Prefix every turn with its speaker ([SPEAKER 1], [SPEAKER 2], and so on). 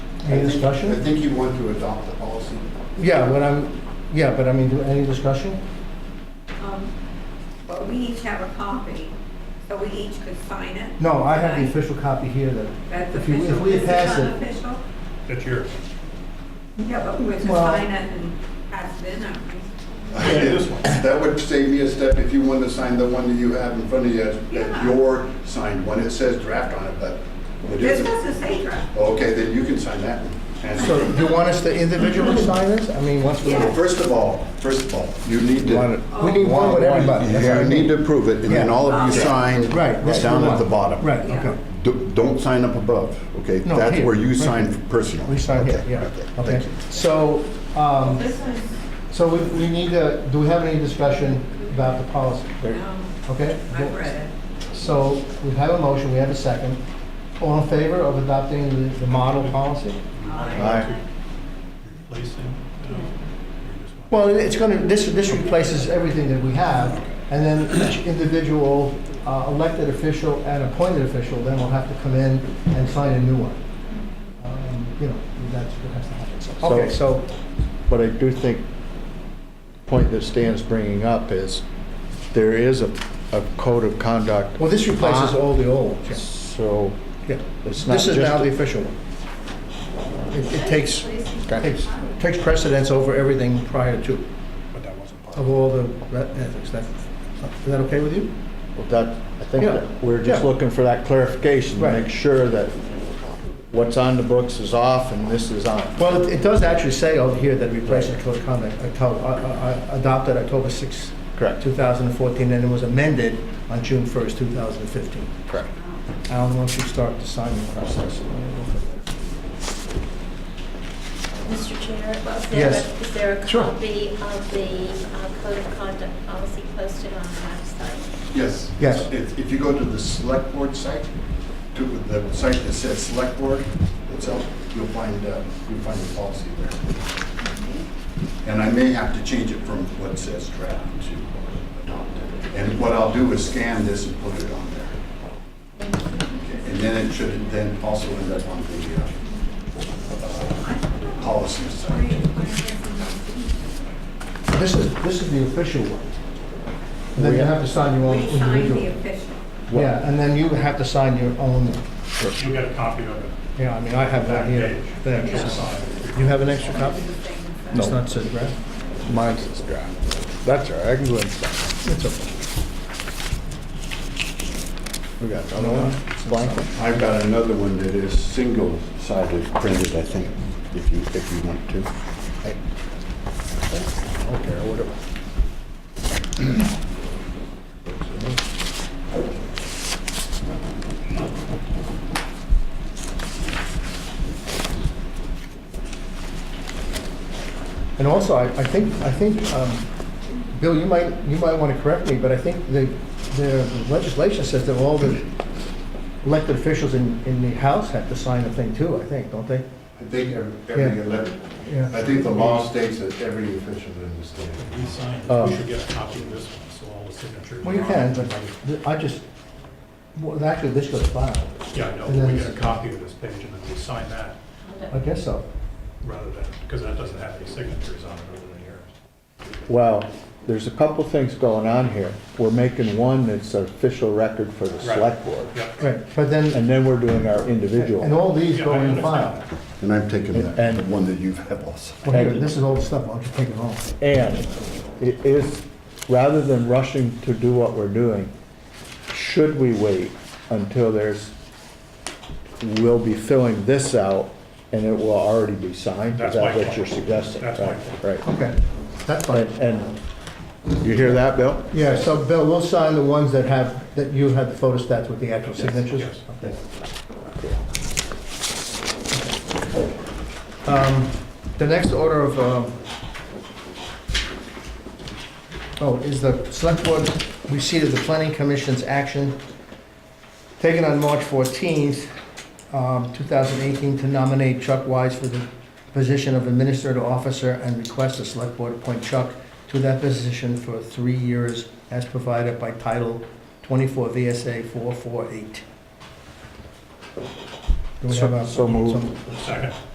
[SPEAKER 1] Any
[SPEAKER 2] I think- I
[SPEAKER 1] discussion?
[SPEAKER 2] think you want to adopt the policy.
[SPEAKER 1] Yeah, but I'm, yeah, but I mean, do- any discussion?
[SPEAKER 3] Um, But we each have a copy, so we each could sign it.
[SPEAKER 1] No, I have the
[SPEAKER 3] Right?
[SPEAKER 1] official copy here that,
[SPEAKER 3] That's
[SPEAKER 1] if you- if
[SPEAKER 3] official.
[SPEAKER 1] we
[SPEAKER 3] Is
[SPEAKER 1] pass it-
[SPEAKER 3] unofficial?
[SPEAKER 4] That's yours.
[SPEAKER 3] Yeah, but we could
[SPEAKER 1] Well-
[SPEAKER 3] sign it and pass it in. aren't we?
[SPEAKER 4] this one.
[SPEAKER 2] That would save me a step if you wanted to sign the one that you have in front of you, that
[SPEAKER 3] Yeah.
[SPEAKER 2] your signed one, it says draft on it, but it
[SPEAKER 3] This
[SPEAKER 2] isn't.
[SPEAKER 3] doesn't say draft.
[SPEAKER 2] Okay, then you can sign that one.
[SPEAKER 1] so
[SPEAKER 2] And
[SPEAKER 1] you want us to individually sign this? I mean, once we.
[SPEAKER 2] Well, First of all, first of all, you need
[SPEAKER 5] Want it-
[SPEAKER 2] to,
[SPEAKER 1] We need Oh, one with everybody. that's what I
[SPEAKER 5] Yeah,
[SPEAKER 2] you
[SPEAKER 1] mean.
[SPEAKER 2] need to approve it, and then
[SPEAKER 1] Yeah.
[SPEAKER 2] all of you
[SPEAKER 3] Yeah.
[SPEAKER 2] sign
[SPEAKER 1] Right. that's
[SPEAKER 2] down
[SPEAKER 1] the
[SPEAKER 2] at the
[SPEAKER 1] one.
[SPEAKER 2] bottom.
[SPEAKER 1] Right,
[SPEAKER 3] Yeah.
[SPEAKER 1] okay.
[SPEAKER 2] Do- Don't sign up above, okay?
[SPEAKER 1] No,
[SPEAKER 2] That's
[SPEAKER 1] here,
[SPEAKER 2] where you
[SPEAKER 1] right
[SPEAKER 2] sign
[SPEAKER 1] here.
[SPEAKER 2] personally.
[SPEAKER 1] We sign here,
[SPEAKER 2] Okay,
[SPEAKER 1] yeah,
[SPEAKER 2] okay,
[SPEAKER 1] okay.
[SPEAKER 2] thank you.
[SPEAKER 1] So, um,
[SPEAKER 3] This is,
[SPEAKER 1] so we, we need to, do we have any discussion about the policy?
[SPEAKER 3] um,
[SPEAKER 1] Okay?
[SPEAKER 3] I've read it.
[SPEAKER 1] So we have a motion, we have a second. All in favor of adopting the, the model policy?
[SPEAKER 2] Aye.
[SPEAKER 4] Replacing? no, you just
[SPEAKER 1] Well,
[SPEAKER 4] want-
[SPEAKER 1] it's going to, this, this replaces everything that we have, and then each individual uh, elected official and appointed official then will have to come in and sign a new one. Um, You know, that's what has to happen. Okay, so,
[SPEAKER 5] But I do think, point that Stan's bringing up is, there is a, a code of conduct.
[SPEAKER 1] well, this replaces all the old ones.
[SPEAKER 5] So
[SPEAKER 1] yeah.
[SPEAKER 5] it's not
[SPEAKER 1] This is now the
[SPEAKER 5] just,
[SPEAKER 1] official one. It it takes,
[SPEAKER 5] Okay.
[SPEAKER 1] takes takes precedence over everything prior to,
[SPEAKER 4] But that wasn't part of
[SPEAKER 1] of all the re- ethics. That- Is that okay with you?
[SPEAKER 5] Well, that, I think
[SPEAKER 1] Yeah.
[SPEAKER 5] that we're just
[SPEAKER 1] Yeah.
[SPEAKER 5] looking for that clarification, to
[SPEAKER 1] Right.
[SPEAKER 5] make sure that what's on the books is off and this is on.
[SPEAKER 1] Well, it it does actually say over here that replacement code of conduct Octo- uh, uh, adopted October 6,
[SPEAKER 5] Correct.
[SPEAKER 1] 2014, and it was amended on June 1st, 2015.
[SPEAKER 5] Correct.
[SPEAKER 1] Alan, why don't you start the signing process?
[SPEAKER 6] Mr. Chair, uh, is there
[SPEAKER 1] Yes.
[SPEAKER 6] a- is there a
[SPEAKER 1] Sure.
[SPEAKER 6] copy of the uh, Code of Conduct policy posted on the website?
[SPEAKER 2] Yes.
[SPEAKER 1] Yes.
[SPEAKER 2] If if you go to the select board site, to the site that says select board itself, you'll find, uh, you'll find the policy there. And I may have to change it from what says draft to adopted. And what I'll do is scan this and put it on there. Okay, And then it should then also end up on the uh, uh, policy site.
[SPEAKER 1] This is, this is the official one. And then you have to sign your own
[SPEAKER 3] We sign the
[SPEAKER 1] individual.
[SPEAKER 3] official.
[SPEAKER 1] Yeah, and then you have to sign your own,
[SPEAKER 4] it. You got a copy of it.
[SPEAKER 1] yeah, I mean, I have that here. There,
[SPEAKER 4] You
[SPEAKER 1] it's-
[SPEAKER 4] signed it.
[SPEAKER 1] You have an extra copy?
[SPEAKER 5] No.
[SPEAKER 1] It's not said, right?
[SPEAKER 5] Mine says draft. That's all right, I can go inside.
[SPEAKER 1] It's okay.
[SPEAKER 5] We got another one, blank.
[SPEAKER 2] I've got another one that is single-sided printed, I think, if you, if you want to.
[SPEAKER 5] Okay, or whatever.
[SPEAKER 1] And also, I, I think, I think, um, Bill, you might, you might want to correct me, but I think the, the legislation says that all the elected officials in, in the House have to sign a thing too, I think, don't they?
[SPEAKER 2] I think every
[SPEAKER 1] Yeah.
[SPEAKER 2] every elected,
[SPEAKER 1] Yeah.
[SPEAKER 2] I think the law states that every official in the state.
[SPEAKER 4] We signed,
[SPEAKER 1] Oh.
[SPEAKER 4] we should get a copy of this one, so all the signatures.
[SPEAKER 1] Well, you
[SPEAKER 4] are
[SPEAKER 1] can,
[SPEAKER 4] on it.
[SPEAKER 1] but th- I just, well, actually, this goes filed.
[SPEAKER 4] Yeah, I know,
[SPEAKER 1] and then
[SPEAKER 4] we get a
[SPEAKER 1] it's-
[SPEAKER 4] copy of this page and then we sign that
[SPEAKER 1] I guess so.
[SPEAKER 4] rather than, because that doesn't have any signatures on it other than yours.
[SPEAKER 5] Well, there's a couple things going on here. We're making one that's official record for the
[SPEAKER 4] Right.
[SPEAKER 5] select board.
[SPEAKER 4] Yeah.
[SPEAKER 1] Right, but then,
[SPEAKER 5] And then we're doing our
[SPEAKER 1] and
[SPEAKER 5] individual.
[SPEAKER 1] all these
[SPEAKER 4] Yeah,
[SPEAKER 1] go
[SPEAKER 4] I
[SPEAKER 1] in
[SPEAKER 4] understand
[SPEAKER 1] file.
[SPEAKER 4] that.
[SPEAKER 2] And I'm taking that,
[SPEAKER 5] And-
[SPEAKER 2] the one that you have also.
[SPEAKER 1] Well, here, this is all the stuff, I'll just take it all.
[SPEAKER 5] And it is, rather than rushing to do what we're doing, should we wait until there's, we'll be filling this out and it will already be signed? Is
[SPEAKER 4] That's
[SPEAKER 5] that
[SPEAKER 4] my
[SPEAKER 5] what
[SPEAKER 4] point.
[SPEAKER 5] you're suggesting?
[SPEAKER 4] That's my point.
[SPEAKER 5] Right, right.
[SPEAKER 1] Okay, that's fine.
[SPEAKER 5] And, and you hear that, Bill?
[SPEAKER 1] Yeah, so Bill, we'll sign the ones that have, that you have the photostats with the actual signatures?
[SPEAKER 4] yes.
[SPEAKER 1] Okay. Um, The next order of, um, oh, is the select board receipt of the planning commission's action taken on March 14th, um, 2018, to nominate Chuck Wise for the position of administrative officer and request the select board appoint Chuck to that position for three years as provided by Title 24 VSA 448. Do we have a-
[SPEAKER 5] So- so moved.
[SPEAKER 4] Second.